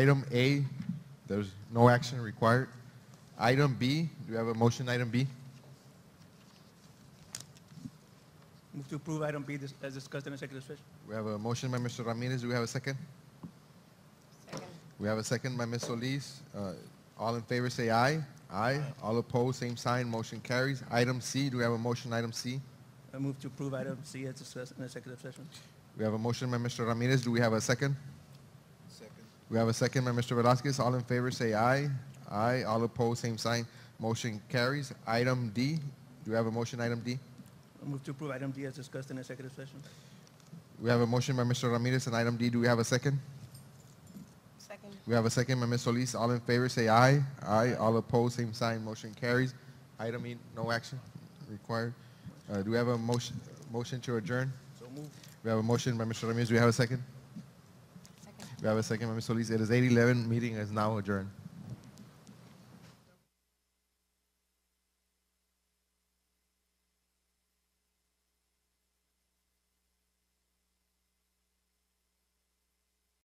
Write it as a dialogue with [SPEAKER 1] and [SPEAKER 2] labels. [SPEAKER 1] Item A, there's no action required. Item B, do you have a motion, item B?
[SPEAKER 2] Move to approve item B dis- as discussed in executive session.
[SPEAKER 1] We have a motion by Mr. Ramirez, do we have a second? We have a second by Ms. Solis. Uh, All in favor, say aye. Aye. All opposed, same sign, motion carries. Item C, do we have a motion, item C?
[SPEAKER 2] I Uh, move to approve item C as discussed in executive session.
[SPEAKER 1] We have a motion by Mr. Ramirez, do we have a second? We have a second by Mr. Velazquez. All in favor, say aye. Aye. All opposed, same sign. Motion carries. Item D. Do we have a motion, item D?
[SPEAKER 2] I Uh, move to approve item D as discussed in executive session.
[SPEAKER 1] We have a motion by Mr. Ramirez and item D. Do we have a second?
[SPEAKER 3] Second.
[SPEAKER 1] We have a second by Ms. Solis. All in favor, say aye. Aye. All opposed, same sign. Motion carries. Item E, no action required. Uh, do we have a motion, motion to adjourn?
[SPEAKER 2] So move.
[SPEAKER 1] We have a motion by Mr. Ramirez. Do we have a second?
[SPEAKER 3] Second.
[SPEAKER 1] We have a second by Ms. Solis. It is 8:11. Meeting is now adjourned.